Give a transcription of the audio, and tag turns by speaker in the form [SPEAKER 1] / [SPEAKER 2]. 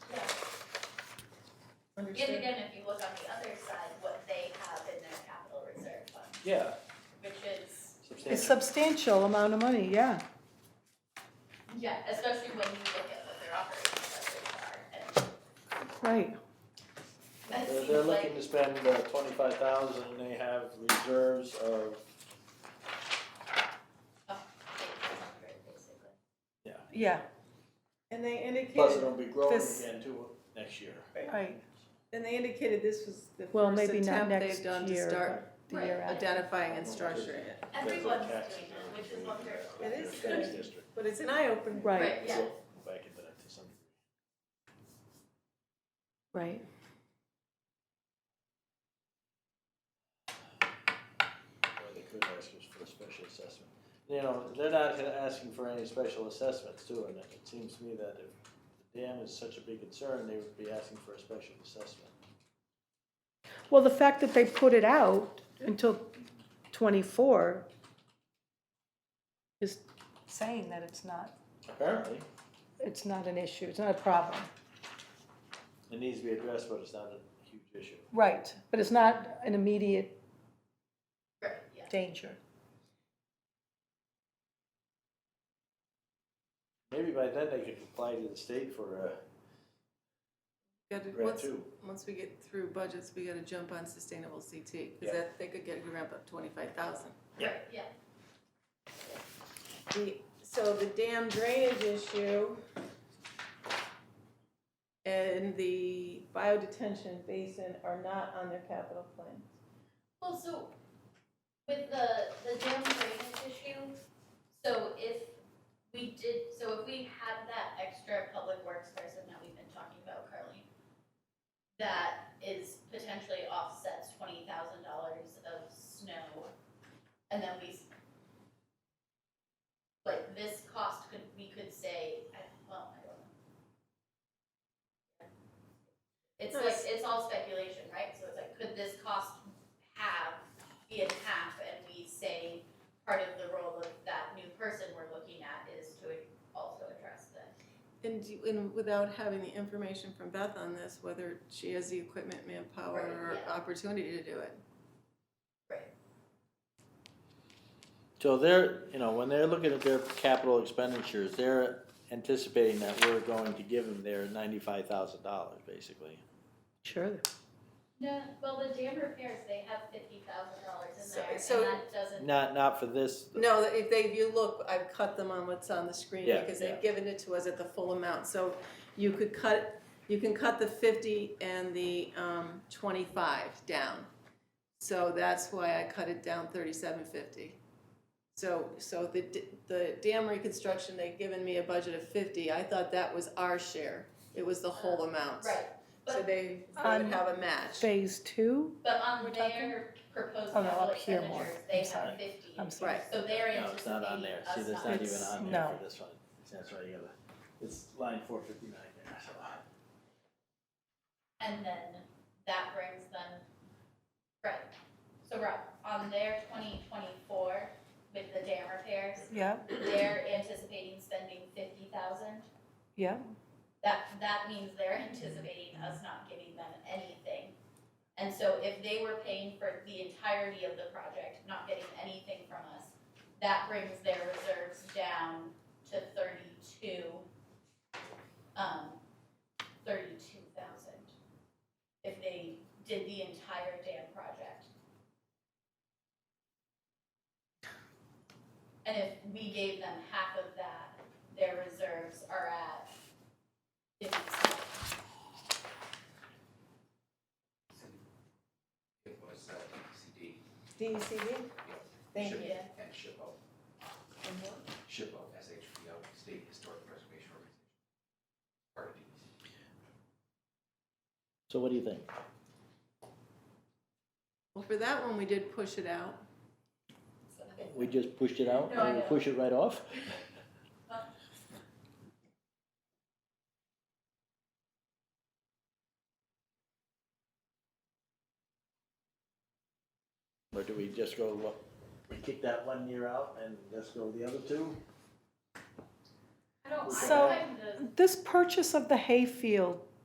[SPEAKER 1] And again, if you look on the other side, what they have in their capital reserve fund,
[SPEAKER 2] Yeah,
[SPEAKER 1] which is,
[SPEAKER 3] It's
[SPEAKER 2] substantial.
[SPEAKER 3] substantial amount of money, yeah.
[SPEAKER 1] yeah, especially when you look at what their operating budgets are. And
[SPEAKER 3] Right,
[SPEAKER 1] that
[SPEAKER 2] They're, they're
[SPEAKER 1] seems
[SPEAKER 2] looking
[SPEAKER 1] like,
[SPEAKER 2] to spend uh, twenty-five thousand and they have reserves of,
[SPEAKER 1] oh, eight hundred basically.
[SPEAKER 3] yeah,
[SPEAKER 4] And they
[SPEAKER 2] plus
[SPEAKER 4] indicated,
[SPEAKER 2] it'll be growing
[SPEAKER 3] This-
[SPEAKER 2] again too next year.
[SPEAKER 3] right.
[SPEAKER 4] and they indicated this was the
[SPEAKER 3] Well,
[SPEAKER 4] first
[SPEAKER 3] maybe not
[SPEAKER 4] attempt
[SPEAKER 3] next
[SPEAKER 4] they've done to
[SPEAKER 3] year,
[SPEAKER 4] start
[SPEAKER 3] The
[SPEAKER 1] Right.
[SPEAKER 3] year after.
[SPEAKER 4] identifying and structuring it.
[SPEAKER 1] Everyone's doing that, which is wonderful.
[SPEAKER 4] It is
[SPEAKER 2] Tax
[SPEAKER 4] good.
[SPEAKER 2] district.
[SPEAKER 4] But it's an eye-opener.
[SPEAKER 3] Right,
[SPEAKER 1] yeah.
[SPEAKER 2] So, Back into that to some degree.
[SPEAKER 3] right.
[SPEAKER 2] Or they could ask us for a special assessment. You know, they're not gonna- asking for any special assessments too, and it seems to me that if the dam is such a big concern, they would be asking for a special assessment.
[SPEAKER 3] Well, the fact that they put it out until twenty-four is saying that it's not,
[SPEAKER 2] Apparently,
[SPEAKER 3] it's not an issue, it's not a problem.
[SPEAKER 2] it needs to be addressed, but it's not a huge issue.
[SPEAKER 3] Right, but it's not an immediate
[SPEAKER 1] Right, yeah.
[SPEAKER 3] danger.
[SPEAKER 2] Maybe by then they could apply to the state for a
[SPEAKER 4] Gotta-
[SPEAKER 2] grant
[SPEAKER 4] once-
[SPEAKER 2] too.
[SPEAKER 4] Once we get through budgets, we gotta jump on sustainable CT,
[SPEAKER 2] Yeah.
[SPEAKER 4] because that, they could get a ramp up twenty-five thousand.
[SPEAKER 2] Yeah.
[SPEAKER 1] Yeah,
[SPEAKER 4] The, so the dam drainage issue and the biodetention basin are not on their capital plan.
[SPEAKER 1] well, so with the, the dam drainage issue, so if we did, so if we had that extra public works person that we've been talking about, Carly, that is potentially offsets twenty thousand dollars of snow, and then we, s- like, this cost could, we could say, I, well, I don't know. It's like, it's all speculation, right? So it's like, could this cost have, be in half, and we say part of the role of that new person we're looking at is to also address the,
[SPEAKER 4] And, you- and without having the information from Beth on this, whether she has the equipment, manpower,
[SPEAKER 1] Right,
[SPEAKER 4] or
[SPEAKER 1] yeah.
[SPEAKER 4] opportunity to do it.
[SPEAKER 1] right?
[SPEAKER 2] So they're, you know, when they're looking at their capital expenditures, they're anticipating that we're going to give them their ninety-five thousand dollars, basically.
[SPEAKER 3] Sure.
[SPEAKER 1] No, well, the dam repairs, they have fifty thousand dollars in
[SPEAKER 4] So-
[SPEAKER 1] there,
[SPEAKER 4] so-
[SPEAKER 1] and that doesn't,
[SPEAKER 2] Not, not for this,
[SPEAKER 4] No, if they, if you look, I've cut them on what's on the screen
[SPEAKER 2] Yeah,
[SPEAKER 4] because
[SPEAKER 2] yeah.
[SPEAKER 4] they've given it to us at the full amount, so you could cut, you can cut the fifty and the, um, twenty-five down. So that's why I cut it down thirty-seven fifty. So, so the, d- the dam reconstruction, they've given me a budget of fifty, I thought that was our share, it was the whole amount.
[SPEAKER 1] right,
[SPEAKER 4] So
[SPEAKER 1] but-
[SPEAKER 4] they, they
[SPEAKER 1] Um,
[SPEAKER 4] would have a match.
[SPEAKER 3] Phase two,
[SPEAKER 1] but on
[SPEAKER 3] We're talking-
[SPEAKER 1] their proposed
[SPEAKER 3] Oh, no,
[SPEAKER 1] capital
[SPEAKER 3] up here more.
[SPEAKER 1] expenditures, they
[SPEAKER 3] I'm
[SPEAKER 1] have
[SPEAKER 3] sorry.
[SPEAKER 1] 50
[SPEAKER 3] I'm sorry.
[SPEAKER 4] Right.
[SPEAKER 1] So they're
[SPEAKER 2] no, it's not
[SPEAKER 1] anticipating
[SPEAKER 2] on there, see,
[SPEAKER 1] us
[SPEAKER 2] that's
[SPEAKER 1] not-
[SPEAKER 2] not even
[SPEAKER 3] It's-
[SPEAKER 2] on there
[SPEAKER 3] no.
[SPEAKER 2] for this one. That's right, you gotta, it's line four fifty-nine there, so.
[SPEAKER 1] And then that brings them, right, so Rob, on their twenty twenty-four with the dam repairs,
[SPEAKER 3] yeah,
[SPEAKER 1] they're anticipating spending fifty thousand.
[SPEAKER 3] yeah,
[SPEAKER 1] That, that means they're anticipating us not giving them anything. And so if they were paying for the entirety of the project, not getting anything from us, that brings their reserves down to thirty-two, um, thirty-two thousand. If they did the entire dam project. And if we gave them half of that, their reserves are at fifty-seven.
[SPEAKER 5] It was uh, CD
[SPEAKER 4] DECD? Thank
[SPEAKER 5] Sure.
[SPEAKER 4] you.
[SPEAKER 1] Yeah,
[SPEAKER 5] and SHPO. SHPO, SHPO, State Historic Preservation Organization. Part of E DEC.
[SPEAKER 2] So what do you think?
[SPEAKER 4] Well, for that one, we did push it out.
[SPEAKER 1] so-
[SPEAKER 2] We just pushed it out,
[SPEAKER 1] No, I
[SPEAKER 2] and we
[SPEAKER 1] know.
[SPEAKER 2] push it right off? Or do we just go, uh, look, we kick that one year out and just go the other two?
[SPEAKER 1] I don't, I
[SPEAKER 3] So-
[SPEAKER 1] kind of,
[SPEAKER 3] This purchase of the hayfield